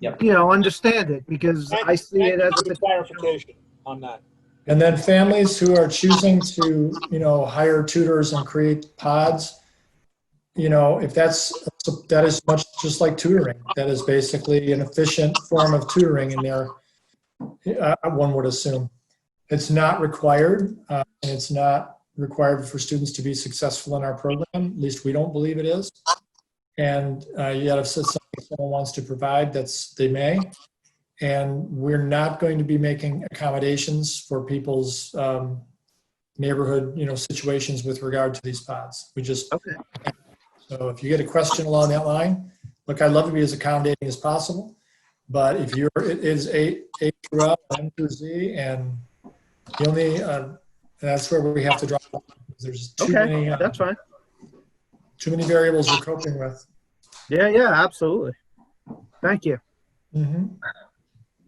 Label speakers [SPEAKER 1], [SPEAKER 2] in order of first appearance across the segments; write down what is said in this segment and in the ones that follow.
[SPEAKER 1] you know, understand it because I see it as
[SPEAKER 2] Thank
[SPEAKER 1] the
[SPEAKER 2] you for Clarification on that.
[SPEAKER 3] And then families who are choosing to, you know, hire tutors and create pods, you know, if that's, that is much just like tutoring. That is basically an efficient form of tutoring in there, uh, one would assume. It's not required, uh, and it's not required for students to be successful in our program, at least we don't believe it is. And uh, yet if someone wants to provide, that's, they may. And we're not going to be making accommodations for people's um, neighborhood, you know, situations with regard to these pods. We just,
[SPEAKER 1] Okay.
[SPEAKER 3] so if you get a question along that line, look, I'd love to be as accommodating as possible. But if you're, it is A, A through L, M through Z, and the only, uh, that's where we have to draw. the line. There's too
[SPEAKER 1] Okay,
[SPEAKER 3] many, uh,
[SPEAKER 1] That's fine.
[SPEAKER 3] too many variables we're coping with.
[SPEAKER 1] Yeah, yeah, absolutely. Thank you.
[SPEAKER 3] Mhm.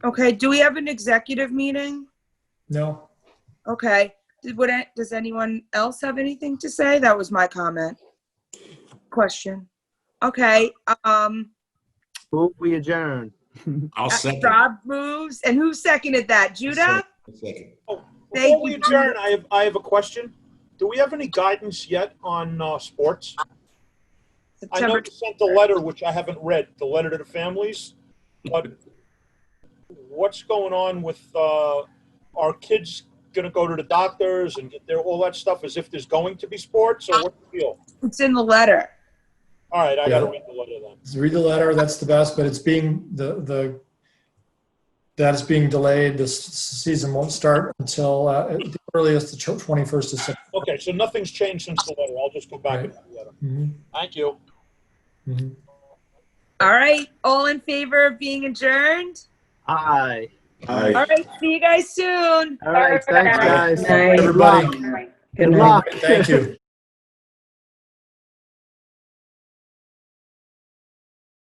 [SPEAKER 4] Okay, do we have an executive meeting?
[SPEAKER 3] No,
[SPEAKER 4] Okay, did, would, it- does anyone else have anything to say? That was my comment. Question. Okay, um,
[SPEAKER 1] Move we adjourn.
[SPEAKER 5] I'll second.
[SPEAKER 4] Rob moves, and who seconded Uh, that? Judah?
[SPEAKER 5] Second.
[SPEAKER 4] Thank
[SPEAKER 2] Before we
[SPEAKER 4] you.
[SPEAKER 2] adjourn, I have, I have a question. Do we have any guidance yet on uh, sports? I know
[SPEAKER 4] September,
[SPEAKER 2] you sent the letter, which I haven't read, the letter to the families, but what's going on with, uh, are kids gonna go to the doctors and get their, all that stuff as if there's going to be sports or what's the deal?
[SPEAKER 4] it's in the letter.
[SPEAKER 2] All right, I gotta read the letter then.
[SPEAKER 3] Just read the letter, that's the best, but it's being, the, the, that is being delayed. This season won't start until uh, at the earliest, the 21st of September.
[SPEAKER 2] Okay, so nothing's changed since the letter. I'll just go back and read the letter.
[SPEAKER 3] Mhm,
[SPEAKER 2] Thank you.
[SPEAKER 3] mhm.
[SPEAKER 4] All right, all in favor of being adjourned?
[SPEAKER 1] Aye.
[SPEAKER 5] Aye.
[SPEAKER 4] All right, see you guys soon.
[SPEAKER 1] All right, thanks, guys.
[SPEAKER 3] Everybody,
[SPEAKER 1] Good luck.
[SPEAKER 3] thank you.